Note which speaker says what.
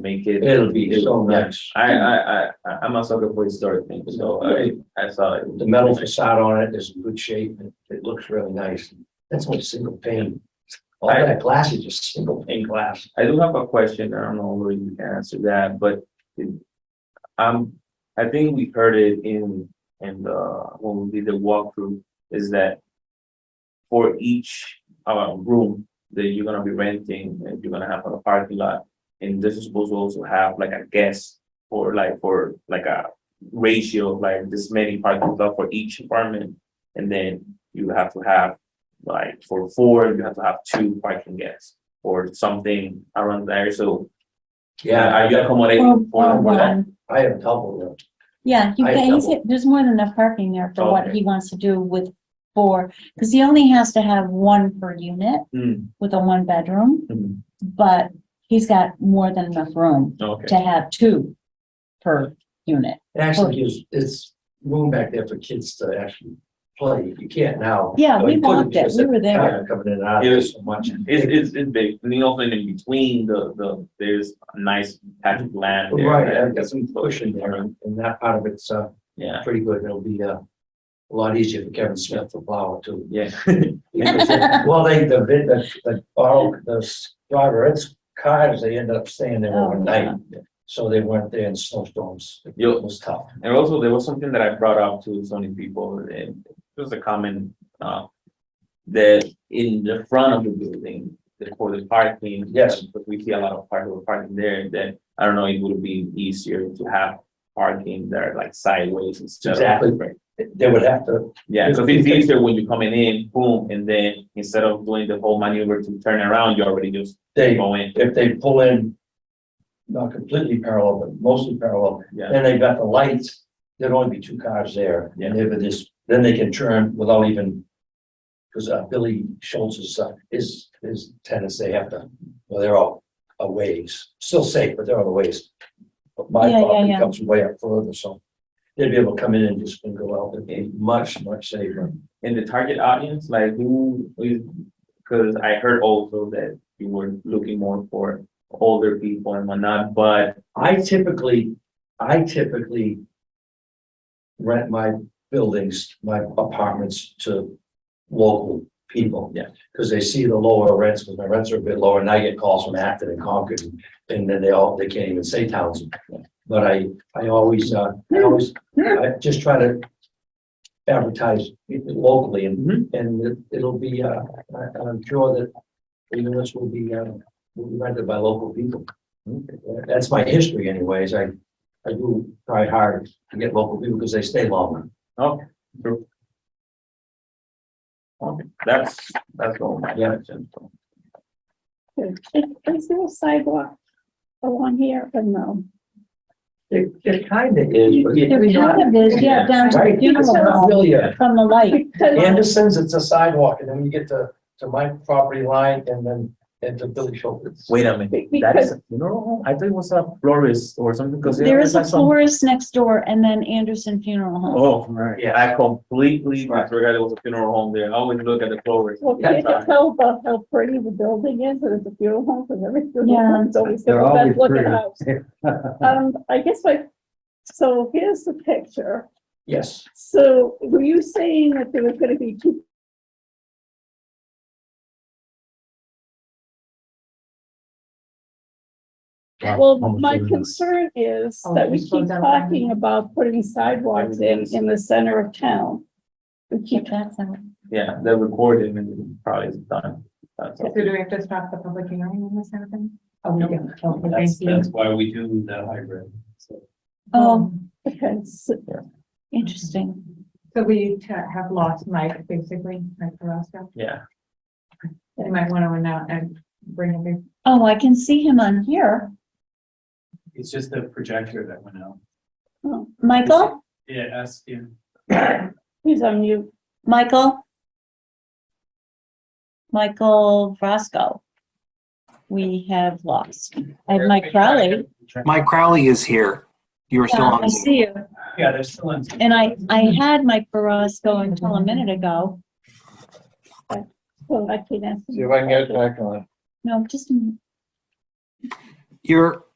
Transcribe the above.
Speaker 1: make it.
Speaker 2: It'll be so
Speaker 1: Yeah.
Speaker 2: nice.
Speaker 1: I, I, I, I- I'm also good for historic things, so I, I saw it.
Speaker 2: The metal facade on it is in good shape and it looks really nice. That's only single pane. All that glass is just single pane glass.
Speaker 1: I do have a question. I don't know whether you can answer that, but it- um, I think we heard it in, in the, when we did the walkthrough, is that for each, uh, room that you're gonna be renting, and you're gonna have on a parking lot, and this is supposed to also have like a guest or like, for like a ratio, of like this many parking lot for each apartment, and then you have to have like for four, you have to have two parking guests or something around there, so
Speaker 2: Yeah,
Speaker 1: are you accommodating for for that?
Speaker 2: I I have double them.
Speaker 3: Yeah, you
Speaker 2: I
Speaker 3: can, he's,
Speaker 2: double.
Speaker 3: there's more than enough parking there for what
Speaker 1: Okay.
Speaker 3: he wants to do with four, because he only has to have one per unit
Speaker 1: Mm,
Speaker 3: with a one bedroom,
Speaker 1: mm,
Speaker 3: but he's got more than enough room
Speaker 1: Okay,
Speaker 3: to have two per unit.
Speaker 2: It
Speaker 3: Oh.
Speaker 2: actually gives, it's room back there for kids to actually play. You can't now.
Speaker 3: Yeah,
Speaker 2: But
Speaker 3: we
Speaker 2: you couldn't
Speaker 3: walked it,
Speaker 2: because
Speaker 3: we
Speaker 2: of
Speaker 3: were there.
Speaker 2: traffic Coming in and out
Speaker 1: It
Speaker 2: of there
Speaker 1: was-
Speaker 2: so much.
Speaker 1: it's, it's, it's big, and then also in between, the, the, there's a nice patch of land there.
Speaker 2: Right,
Speaker 1: that-
Speaker 2: I've got some cushion there and and that part of it's uh
Speaker 1: Yeah,
Speaker 2: pretty good. It'll be uh a lot easier for Kevin Smith to plow too.
Speaker 1: yeah,
Speaker 2: Well, they, the, vid- the, the, borrow- the s- driver, it's cars, they ended up staying there
Speaker 3: Oh,
Speaker 2: overnight. So they weren't there in snowstorms. It
Speaker 1: Yo.
Speaker 2: was tough.
Speaker 1: and also there was something that I brought up to so many people, and it was a comment, uh, that in the front of the building, the- for the parking.
Speaker 2: Yes.
Speaker 1: But we see a lot of parking, parking there, that, I don't know, it would be easier to have parking there like sideways instead of.
Speaker 2: Exactly. They would have to,
Speaker 1: Yeah,
Speaker 2: It's
Speaker 1: because it's
Speaker 2: easy.
Speaker 1: easier when you're coming in, boom, and then instead of doing the whole maneuver to turn around, you already just
Speaker 2: they,
Speaker 1: go in.
Speaker 2: if they pull in, not completely parallel, but mostly parallel,
Speaker 1: Yeah,
Speaker 2: then they've got the lights, there'd only be two cars there.
Speaker 1: Yeah.
Speaker 2: And if it is, then they can turn without even, because Billy Schultz is, uh, is, is tenants, they have to, well, they're all a ways, still safe, but they're all a ways. But my
Speaker 3: Yeah, yeah,
Speaker 2: property
Speaker 3: yeah.
Speaker 2: comes way up further, so they'd be able to come in and just go out, it'd be much, much safer.
Speaker 1: and the target audience, like who is, because I heard also that you were looking more for older people and whatnot, but
Speaker 2: I typically, I typically rent my buildings, my apartments to local people.
Speaker 1: Yeah.
Speaker 2: Because they see the lower rents, because my rents are a bit lower, and I get calls from Acton and Concord, and then they all, they can't even say Townsend. But I, I always, uh, I always, I just try to advertise it locally, and, and it- it'll be, uh, I- I'm sure that even this will be, uh, will be rented by local people. That's my history anyways. I, I do try hard to get local people because they stay longer.
Speaker 1: okay. true. Okay, that's, that's all my
Speaker 2: Yeah.
Speaker 1: questions.
Speaker 4: Is, is there a sidewalk along here or no?
Speaker 2: It, it kind of is, but
Speaker 3: There
Speaker 2: it's not.
Speaker 3: kind of is, yeah, down to the
Speaker 2: Right?
Speaker 3: funeral
Speaker 2: It's not
Speaker 3: home
Speaker 2: really a-
Speaker 3: from the light.
Speaker 4: Because
Speaker 2: Anderson's, it's a sidewalk and then you get to, to my property line and then into Billy Schultz.
Speaker 1: Wait a minute, that is a funeral home? I thought it was a florist or something, because.
Speaker 3: There is a florist next door and then Anderson Funeral Home.
Speaker 1: Oh, right.
Speaker 2: Yeah.
Speaker 1: I completely
Speaker 2: Right.
Speaker 1: forgot it was a funeral home there. I always look at the flowers.
Speaker 4: Well,
Speaker 2: Yeah.
Speaker 4: you can tell about how pretty the building is, and it's a funeral home, and every funeral
Speaker 3: Yeah.
Speaker 4: home's always
Speaker 5: They're
Speaker 4: got the
Speaker 5: always
Speaker 4: best looking house.
Speaker 5: pretty.
Speaker 4: Um, I guess like, so here's the picture.
Speaker 2: Yes,
Speaker 4: So were you saying that there was gonna be two? Well, my concern is that we keep talking about putting sidewalks in, in the center of
Speaker 2: Oh.
Speaker 4: town. We keep
Speaker 3: Keep that side.
Speaker 1: Yeah, they're recorded and probably is done. That's all.
Speaker 6: So do we have to stop the public hearing on this happen? Oh, we
Speaker 2: No.
Speaker 6: do. Okay,
Speaker 5: That's,
Speaker 6: thank you. Um,
Speaker 5: that's why we do the hybrid. So
Speaker 3: Oh,
Speaker 4: Okay, so
Speaker 3: interesting.
Speaker 6: So we t- have lost Mike, basically, Mike Carrasco.
Speaker 1: Yeah,
Speaker 6: You might want to announce and bring him in.
Speaker 3: Oh, I can see him on here.
Speaker 5: it's just the projector that went out.
Speaker 4: oh,
Speaker 3: Michael,
Speaker 5: Yeah, ask him.
Speaker 4: he's on mute.
Speaker 3: Michael? Michael Roscoe. We have lost. I have Mike Crowley.
Speaker 7: Mike Crowley is here. You are still
Speaker 3: Yeah, Uh, I
Speaker 7: on. Zoom.
Speaker 3: see you.
Speaker 5: Yeah, there's still. in-
Speaker 3: And I, I had Mike Roscoe until a minute ago.
Speaker 4: Well, I can't ask. him.
Speaker 2: if I can get back on.
Speaker 3: No, just, a minute.
Speaker 7: You're